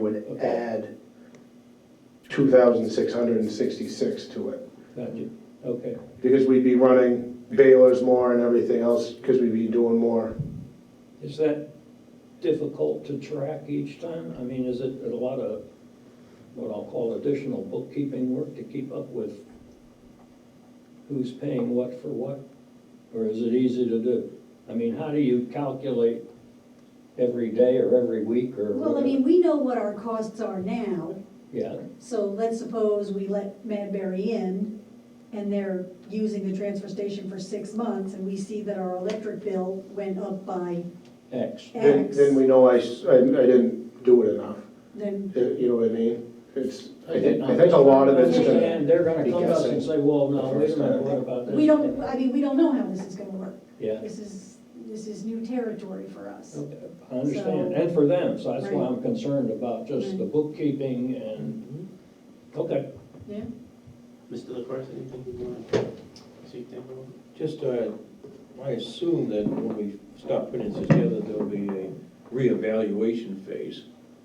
we would Okay. add two thousand six hundred and sixty-six to it. Got you, okay, Because we'd be running balers more and everything else, because we'd be doing more. is that difficult to track each time? I mean, is it a lot of, what I'll call additional bookkeeping work to keep up with who's paying what for what? Or is it easy to do? I mean, how do you calculate every day or every week or Well, I whatever? mean, we know what our costs are now, Yeah, so let's suppose we let Madberry in and they're using the transfer station for six months and we see that our electric bill went up by X, Then, X, then we know I, s- I- I didn't do it enough, then, you you know what I mean? It's, I think, I think a lot of it's gonna, And they're gonna be come up and guessing say, well, no, the wait a first minute, time. what about this? we don't, I mean, we don't know how this is gonna work. Yeah, This is, this is new territory for us. Oh. okay, I understand, and for them, so that's why I'm concerned about just the Right. bookkeeping and, Mm-hmm. okay. Yeah, Mr. LaCroix, anything you want to see, think about? Just, uh, I assume that when we start putting this together, there'll be a reevaluation phase.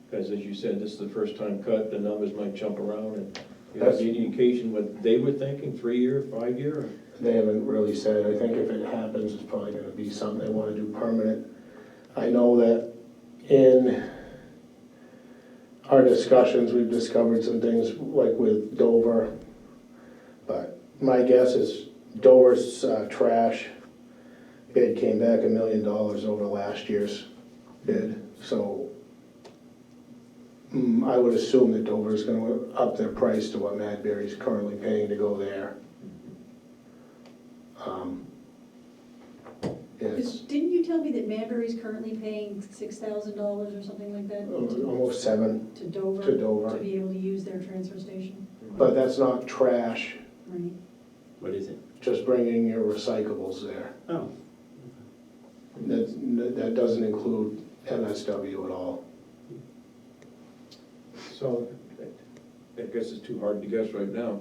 Because as you said, this is the first time cut, the numbers might jump around and you have That's- any indication what they were thinking, three-year, five-year? or- they haven't really said, I think if it happens, it's probably gonna be something they wanna do permanent. I know that in our discussions, we've discovered some things, like with Dover, but my guess is Dover's uh, trash bid came back a million dollars over last year's bid, so mm, I would assume that Dover's gonna up their price to what Madberry's currently paying to go there. Um, It's didn't you tell me that Madberry's currently paying six thousand dollars or something like that to- almost seven to Dover? Oh, to Dover, To be able to use their transfer station, but that's not trash, right? What is it? just bringing your recyclables there. Oh, That, that doesn't include MSW at all. So, I guess it's too hard to guess right now.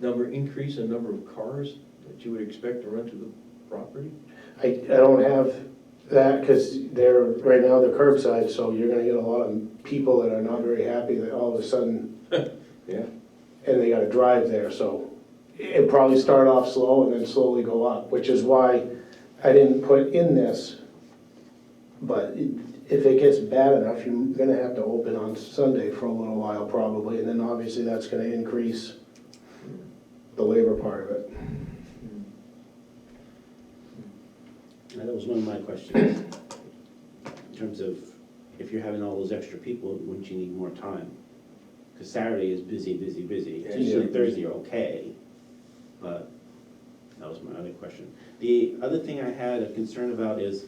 Number, increase in number of cars that you would expect to rent to the property? I, I don't have that, because they're, right now, they're curbside, so you're gonna get a lot of people that are not very happy that all of a sudden, Yeah. and they gotta drive there, so it'll probably start off slow and then slowly go up, which is why I didn't put in this. But it- if it gets bad enough, you're gonna have to open on Sunday for a little while probably, and then obviously that's gonna increase the labor part of it. Hmm. now that was one of my questions. In terms of, if you're having all those extra people, wouldn't you need more time? Because Saturday is busy, busy, busy. Yeah. Tuesday and Thursday are okay, but that was my other question. The other thing I had a concern about is,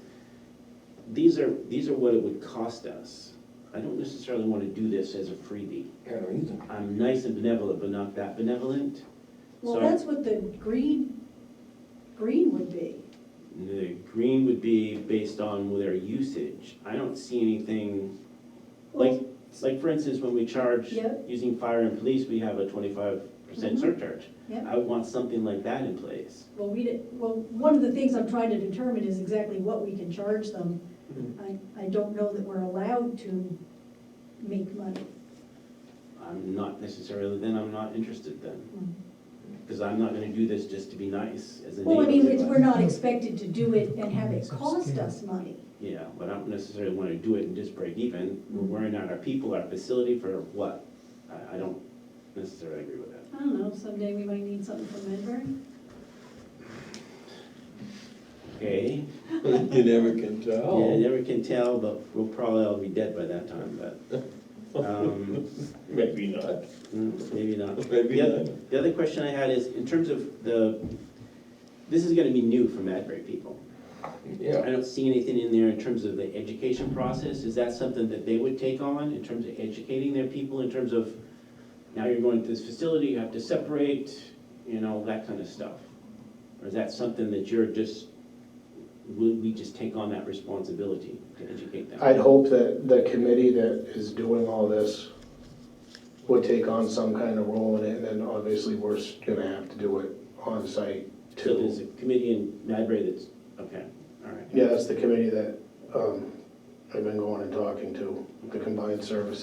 these are, these are what it would cost us. I don't necessarily want to do this as a freebie. I don't either. I'm nice and benevolent, but not that benevolent. Well, So- that's what the green, green would be. The green would be based on their usage. I don't see anything, like, like for instance, when we charge Yeah. using fire and police, we have a twenty-five percent Mhm. surcharge. Yeah, I would want something like that in place. well, we did, well, one of the things I'm trying to determine is exactly what we can charge them. Mm-hmm. I, I don't know that we're allowed to make money. I'm not necessarily, then I'm not interested then, Mm. because I'm not gonna do this just to be nice as a neighbor. Well, I mean, it's, we're not expected to do it and have it cost us money. Yeah, but I don't necessarily wanna do it and just break even. We're Mm-hmm. worrying out our people, our facility for what? I, I don't necessarily agree with that. I don't know, someday we might need something from Medbury. Okay? You never can tell. Yeah, you never can tell, but we'll probably all be dead by that time, but, um, Maybe not, mm, maybe not. maybe The other- not. The other question I had is, in terms of the, this is gonna be new for Madbury people. Yeah. I don't see anything in there in terms of the education process, is that something that they would take on in terms of educating their people, in terms of, now you're going to this facility, you have to separate, you know, that kind of stuff? Or is that something that you're just, would we just take on that responsibility to educate them? I'd hope that the committee that is doing all this would take on some kind of role in it, and then obviously we're s- gonna have to do it on site So there's too. a committee in Madbury that's, okay, all right. Yeah, that's the committee that um, I've been going and talking to, the combined service